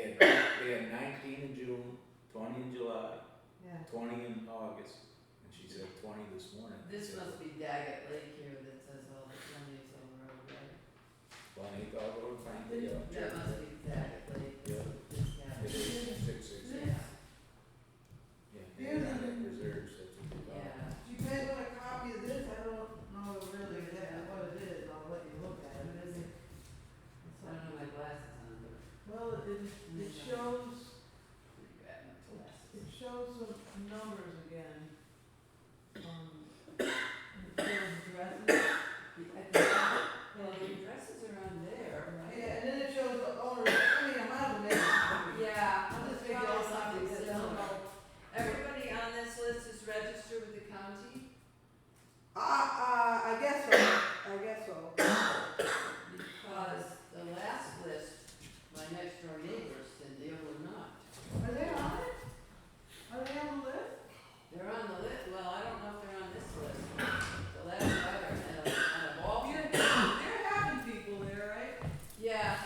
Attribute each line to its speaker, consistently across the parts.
Speaker 1: we had nineteen in June, twenty in July,
Speaker 2: Yeah.
Speaker 1: twenty in August, and she said twenty this morning. I
Speaker 2: This
Speaker 1: said,
Speaker 2: must be Daggett Lake here that says all the Sundays on the road, right?
Speaker 1: Bonnie thought, oh, thank you.
Speaker 2: That must be Daggett Lake.
Speaker 1: Yeah.
Speaker 2: This guy.
Speaker 1: It is six, six, six.
Speaker 2: Yeah,
Speaker 1: Yeah, and not in reserves, that's what we got.
Speaker 2: yeah.
Speaker 3: You guys want a copy of this? I don't know really exactly what it is, I'll let you look at it, is it?
Speaker 2: So I don't know my glasses on, but
Speaker 3: Well, it, it shows,
Speaker 2: I'm grab my
Speaker 3: it
Speaker 2: glasses.
Speaker 3: shows some numbers again. Um, it shows dresses,
Speaker 2: I think- Well, the dresses are on there, right?
Speaker 3: yeah, and then it shows the owners, I mean, I'm out of it.
Speaker 2: Yeah,
Speaker 3: I'll just figure
Speaker 2: probably
Speaker 3: out something
Speaker 2: something
Speaker 3: similar.
Speaker 2: similar. Everybody on this list is registered with the county?
Speaker 3: Uh, uh, I guess so, I guess so.
Speaker 2: Because the last list, my next door neighbors, Cindy, were not.
Speaker 3: Are they on it? Are they on the list?
Speaker 2: They're on the list, well, I don't know if they're on this list. The last letter, out of, out of all
Speaker 3: You're,
Speaker 2: people.
Speaker 3: you're having people there, right?
Speaker 2: Yeah.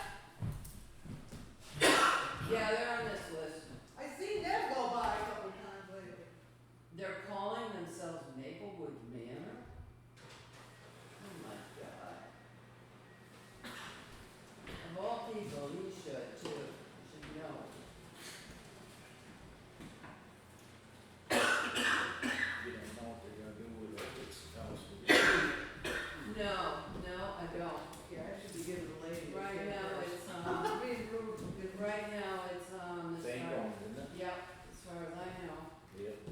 Speaker 2: Yeah, they're on this list.
Speaker 3: I seen them go by a couple times lately.
Speaker 2: They're calling themselves Maplewood Manor? Oh my god. Of all people, you should too, You should know.
Speaker 1: You don't know what they're gonna do with it, it's a house.
Speaker 2: No, no, I don't.
Speaker 3: Yeah, I should be giving the lady. a
Speaker 2: Right
Speaker 3: tip
Speaker 2: now,
Speaker 3: first.
Speaker 2: it's, um,
Speaker 3: I'm being rude, because
Speaker 2: right now, it's, um, as
Speaker 1: Same
Speaker 2: far,
Speaker 1: going, isn't it?
Speaker 2: yep, as far as I know,
Speaker 1: Yep.